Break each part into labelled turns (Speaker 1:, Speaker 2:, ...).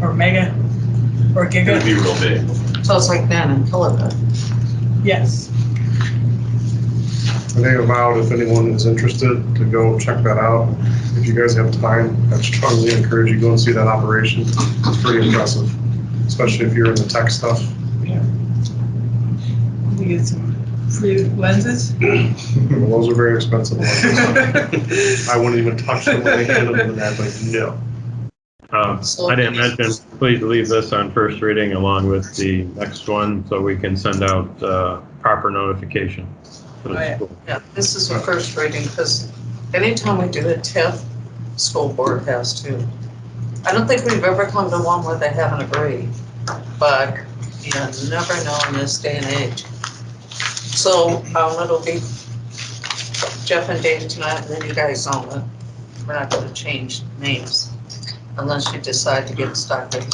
Speaker 1: or mega or
Speaker 2: Gonna
Speaker 1: giga?
Speaker 2: be real big.
Speaker 3: So it's like that in Philippa.
Speaker 1: Yes.
Speaker 4: I think I'm out if anyone is interested to go check that out. If you guys have time, I strongly encourage you to go and see that operation. It's pretty impressive, especially if you're in the tech stuff.
Speaker 1: We get some free lenses.
Speaker 4: Well, Those are very expensive. ones.
Speaker 1: Yes.
Speaker 4: I wouldn't even touch them when they handed them to that, like, no.
Speaker 5: Um, I didn't mention, please leave this on first reading along with the next one so we can send out uh, proper notification. to
Speaker 1: Oh, yeah.
Speaker 5: the school.
Speaker 3: Yeah, this is the first reading, because anytime we do a TIF, school board has to. I don't think we've ever come to one where they haven't agreed, but you never know in this day and age. So, um, it'll be Jeff and Dave tonight, and then you guys on it. We're not gonna change names unless you decide to get stuck in.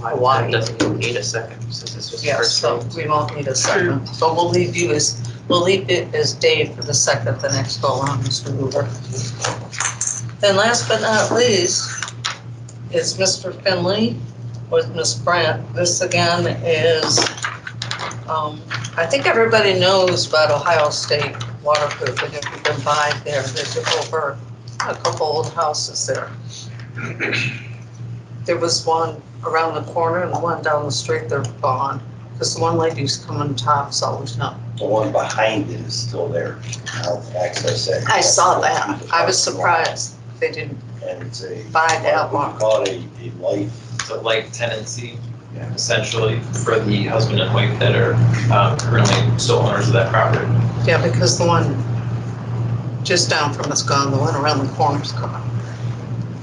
Speaker 3: Why?
Speaker 6: It doesn't even need a second, since this was the
Speaker 3: Yeah,
Speaker 6: first
Speaker 3: so
Speaker 6: reading.
Speaker 3: we won't need a second, but we'll leave you as, we'll leave it as Dave for the second, the next go on, Mr. Hoover. Then last but not least is Mr. Finley with Ms. Brandt. This again is, um, I think everybody knows about Ohio State waterproofing. If you've been by there, they took over a couple old houses there. There was one around the corner and one down the street, they're gone. Because the one lady who's coming top's always not.
Speaker 7: The one behind it is still there. Now, access that.
Speaker 3: I saw that. I was surprised they didn't
Speaker 7: And it's a,
Speaker 3: buy that one.
Speaker 7: what we call it, a, a life.
Speaker 6: So like tenancy, essentially, for the husband and wife that are um, currently still owners of that property.
Speaker 3: Yeah, because the one just down from us gone, the one around the corner's gone.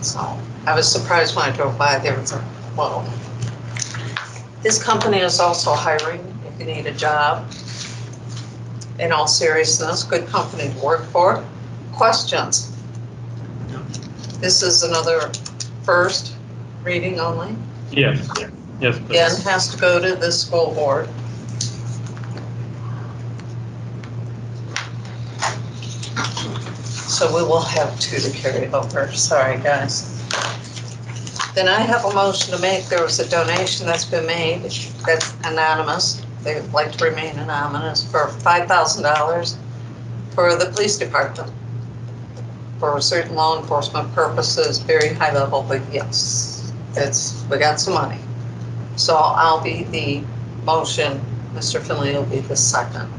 Speaker 3: So I was surprised when I drove by, there was a, whoa. This company is also hiring if you need a job. In all seriousness, good company to work for. Questions? This is another first reading only.
Speaker 5: Yes, yes. please.
Speaker 3: Again, has to go to the school board. So we will have two to carry over, sorry, guys. Then I have a motion to make, there was a donation that's been made, that's anonymous, they would like to remain anonymous, for five thousand dollars for the police department. For certain law enforcement purposes, very high level, but yes, it's, we got some money. So I'll be the motion, Mr. Finley will be the second.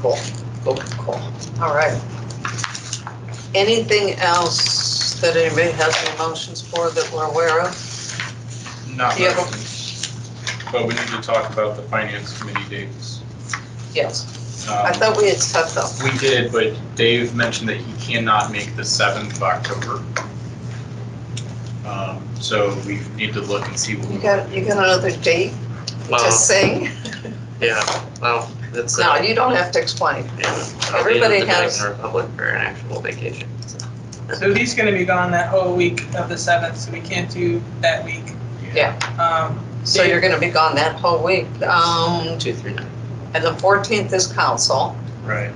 Speaker 3: Cool, cool, cool. All right. Anything else that anybody has any motions for that we're aware of?
Speaker 8: Not
Speaker 3: Yeah.
Speaker 8: really. But we need to talk about the finance committee dates.
Speaker 3: Yes,
Speaker 8: Um,
Speaker 3: I thought we had set them.
Speaker 8: We did, but Dave mentioned that he cannot make the 7th of October. Um, So we need to look and see what we
Speaker 3: You got, you got another date to sing?
Speaker 6: yeah, well, that's.
Speaker 3: No, you don't have to explain. everybody has-
Speaker 6: Republic for an actual vacation.
Speaker 1: So he's gonna be gone that whole week of the seventh, so we can't do that week.
Speaker 3: Yeah.
Speaker 1: Um,
Speaker 3: So you're gonna be gone that whole week. Um,
Speaker 6: Two, three, nine.
Speaker 3: and the fourteenth is council,
Speaker 4: Right.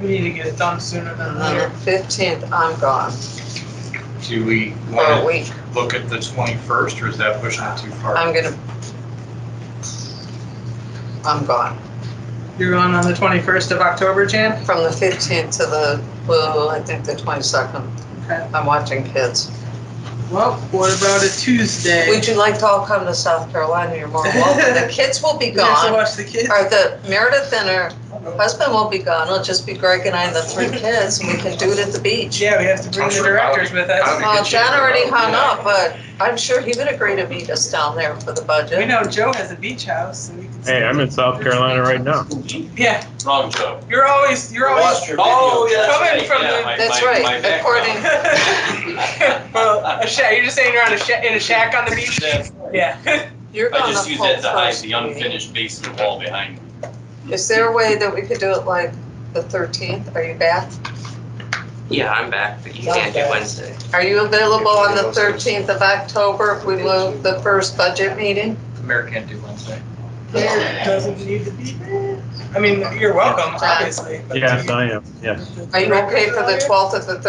Speaker 1: we need to get it done sooner than
Speaker 3: and then
Speaker 1: later.
Speaker 3: the fifteenth, I'm gone
Speaker 8: Do we
Speaker 3: for a
Speaker 8: want
Speaker 3: week.
Speaker 8: to look at the 21st or is that pushing it too far?
Speaker 3: I'm gonna. I'm gone.
Speaker 1: You're going on the twenty-first of October, Jan?
Speaker 3: From the fifteenth to the, well, I think the twenty-second,
Speaker 1: Okay.
Speaker 3: I'm watching kids.
Speaker 1: Well, what about a Tuesday?
Speaker 3: Would you like to all come to South Carolina? You're more welcome. The kids will be
Speaker 1: We have to
Speaker 3: gone.
Speaker 1: watch the kids.
Speaker 3: Or the Meredith and her husband will be gone. It'll just be Greg and I and the three kids and we can do it at the beach.
Speaker 1: Yeah, we have to bring
Speaker 8: I'm
Speaker 1: the
Speaker 8: sure
Speaker 1: directors with us.
Speaker 8: I'll-
Speaker 3: Well, John Uh, already hung up, but I'm sure he would agree to meet us down there for the
Speaker 1: We
Speaker 3: budget.
Speaker 1: know Joe has a beach house and we can.
Speaker 5: Hey, I'm in South Carolina right now.
Speaker 1: Yeah,
Speaker 2: Wrong joke.
Speaker 1: you're always, you're always.
Speaker 7: Lost your
Speaker 6: Oh,
Speaker 7: video.
Speaker 6: yeah, that's
Speaker 1: Coming
Speaker 6: right,
Speaker 1: from
Speaker 6: yeah,
Speaker 1: the-
Speaker 6: my-
Speaker 3: That's
Speaker 6: my-
Speaker 3: right,
Speaker 6: my background.
Speaker 3: according-
Speaker 1: Well, a shack, you're just saying you're on a shack, in a shack on the beach? Yeah.
Speaker 3: You're
Speaker 2: I
Speaker 3: gonna
Speaker 2: just use that
Speaker 3: hold
Speaker 2: to hide
Speaker 3: first
Speaker 2: the
Speaker 3: meeting.
Speaker 2: unfinished basement wall behind me.
Speaker 3: Is there a way that we could do it like the thirteenth? Are you back?
Speaker 6: Yeah, I'm back, but you can't do Wednesday.
Speaker 3: Are you available on the 13th of October if we move the first budget meeting?
Speaker 8: Mayor can't do Wednesday.
Speaker 1: There doesn't need to be there. I mean, you're welcome, obviously. but-
Speaker 5: Yes, I am, yes.
Speaker 3: Are you okay for the 12th or the